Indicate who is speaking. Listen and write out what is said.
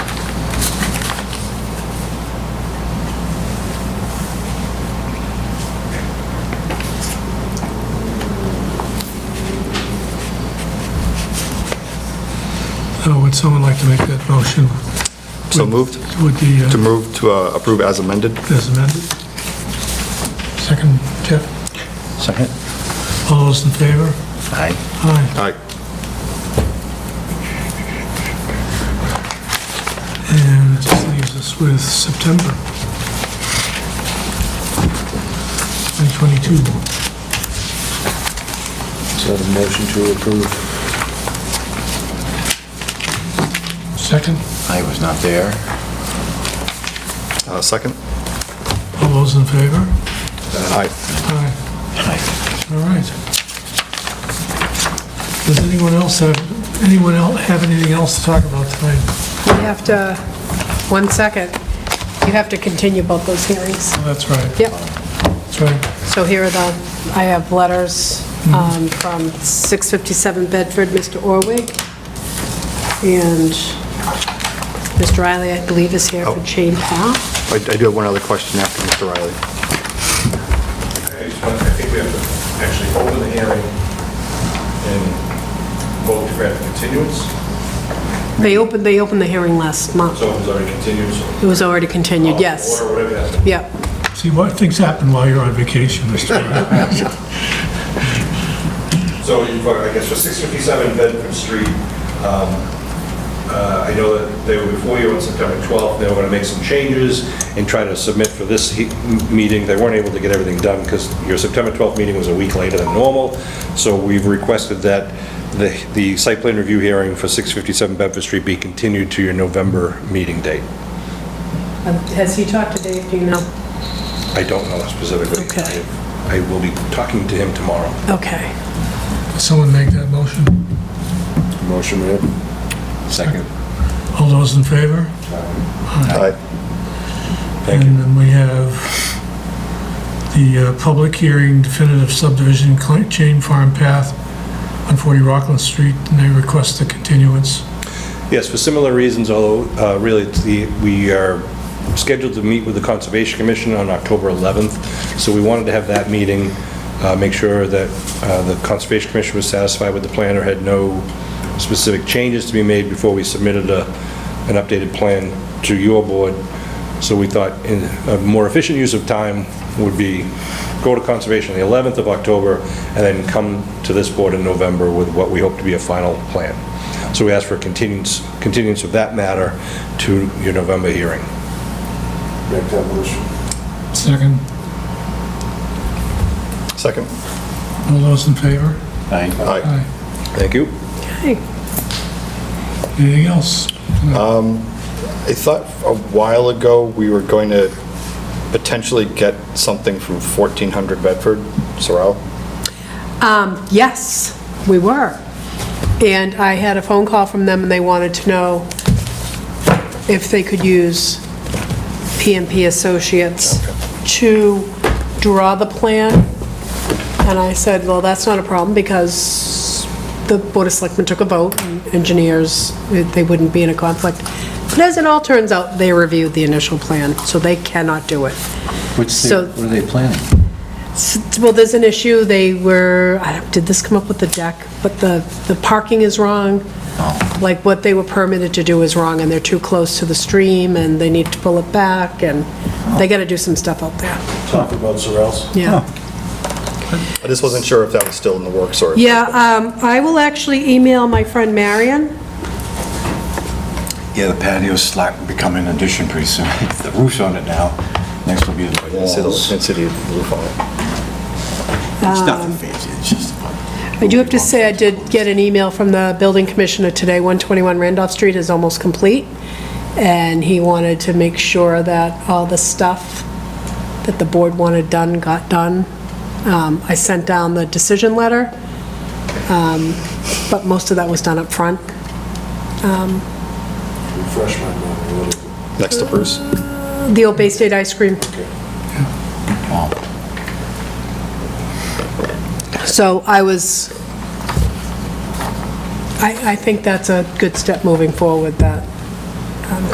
Speaker 1: Would someone like to make that motion
Speaker 2: So moved,
Speaker 1: with the,
Speaker 2: to
Speaker 1: uh,
Speaker 2: move to uh, approve as amended?
Speaker 1: as amended? Second, Jeff?
Speaker 3: Second?
Speaker 1: All those in favor?
Speaker 3: Aye.
Speaker 1: Aye.
Speaker 2: Aye.
Speaker 1: And it just leaves us with September. 2022.
Speaker 3: So the motion to approve.
Speaker 1: Second,
Speaker 3: I was not there.
Speaker 2: Uh, Second?
Speaker 1: all those in favor?
Speaker 2: Aye.
Speaker 1: Aye.
Speaker 3: Aye.
Speaker 1: All right. Does anyone else have, anyone else have anything else to talk about tonight?
Speaker 4: You have to, one second, you have to continue both those hearings.
Speaker 1: Oh, That's right,
Speaker 4: Yep,
Speaker 1: that's right.
Speaker 4: so here are the, I have letters um, from 657 Bedford, Mr. Orwig, and Mr. Riley, I believe, is here for Chain Path.
Speaker 2: I I do have one other question after Mr. Riley.
Speaker 5: I just want- I think we have to actually open the hearing and vote to grant the continuance.
Speaker 4: They opened, they opened the hearing last month.
Speaker 5: So it was already continued, so.
Speaker 4: It was already continued, yes.
Speaker 5: Or whatever has to be.
Speaker 4: Yep,
Speaker 1: See, what, things happen while you're on vacation, Mr. Riley.
Speaker 5: So you've, got, I guess, for 657 Bedford Street, um, uh, I know that they were before you on September 12th, they were going to make some changes and try to submit for this he- m- meeting. They weren't able to get everything done because your September 12th meeting was a week later than normal. So we've requested that the the site plan review hearing for 657 Bedford Street be continued to your November meeting date.
Speaker 4: Um, has he talked to Dave, do you know?
Speaker 5: I don't know specifically.
Speaker 4: Okay.
Speaker 5: I I will be talking to him tomorrow.
Speaker 4: Okay,
Speaker 1: Someone make that motion?
Speaker 3: Motion made. Second.
Speaker 1: All those in favor?
Speaker 2: Aye.
Speaker 5: Thank
Speaker 1: And then we have the uh, public hearing definitive subdivision cl- chain farm path on 40 Rockland Street, and they request a continuance.
Speaker 5: Yes, for similar reasons, although uh, really, it's the- we are scheduled to meet with the Conservation Commission on October 11th, so we wanted to have that meeting, uh, make sure that uh, the Conservation Commission was satisfied with the plan or had no specific changes to be made before we submitted a- an updated plan to your board. So we thought in- a more efficient use of time would be go to Conservation the 11th of October, and then come to this board in November with what we hope to be a final plan. So we asked for a continuance, continuance of that matter to your November hearing.
Speaker 3: Make that motion.
Speaker 1: Second,
Speaker 2: Second?
Speaker 1: all those in favor?
Speaker 3: Aye.
Speaker 2: Aye.
Speaker 1: Aye.
Speaker 5: Thank you.
Speaker 4: okay.
Speaker 1: Anything else?
Speaker 2: I thought a while ago, we were going to potentially get something from 1400 Bedford, Sorrel.
Speaker 4: Um, Yes, we were. And I had a phone call from them, and they wanted to know if they could use PMP Associates to draw the plan. And I said, well, that's not a problem, because the Board of Selectmen took a vote, and engineers, they wouldn't be in a conflict. But as it all turns out, they reviewed the initial plan, so they cannot do it.
Speaker 3: What's
Speaker 4: So-
Speaker 3: their, what are they planning?
Speaker 4: S- Well, there's an issue, they were, I don't, did this come up with the deck? But the, the parking is wrong. Like, what they were permitted to do is wrong, and they're too close to the stream, and they need to pull it back, and they gotta do some stuff out there,
Speaker 6: talk about Sorrells.
Speaker 4: yeah.
Speaker 2: I just wasn't sure if that was still in the works or...
Speaker 4: Yeah, um, I will actually email my friend Marion,
Speaker 3: Yeah, the patio's slack, become an addition pretty soon. The roof's on it now. Next will be the
Speaker 2: I didn't see the
Speaker 3: walls. It's
Speaker 2: intensity of the roof on it.
Speaker 3: nothing fancy, it's just.
Speaker 4: I do have to say, I did get an email from the building commissioner today, 121 Randolph Street is almost complete, and he wanted to make sure that all the stuff that the board wanted done got done. Um, I sent down the decision letter, um, but most of that was done up front.
Speaker 6: Refresh my memory a little bit.
Speaker 2: Next to Bruce.
Speaker 4: The old Bay State ice cream. So I was, I, I think that's a good step moving forward, that um,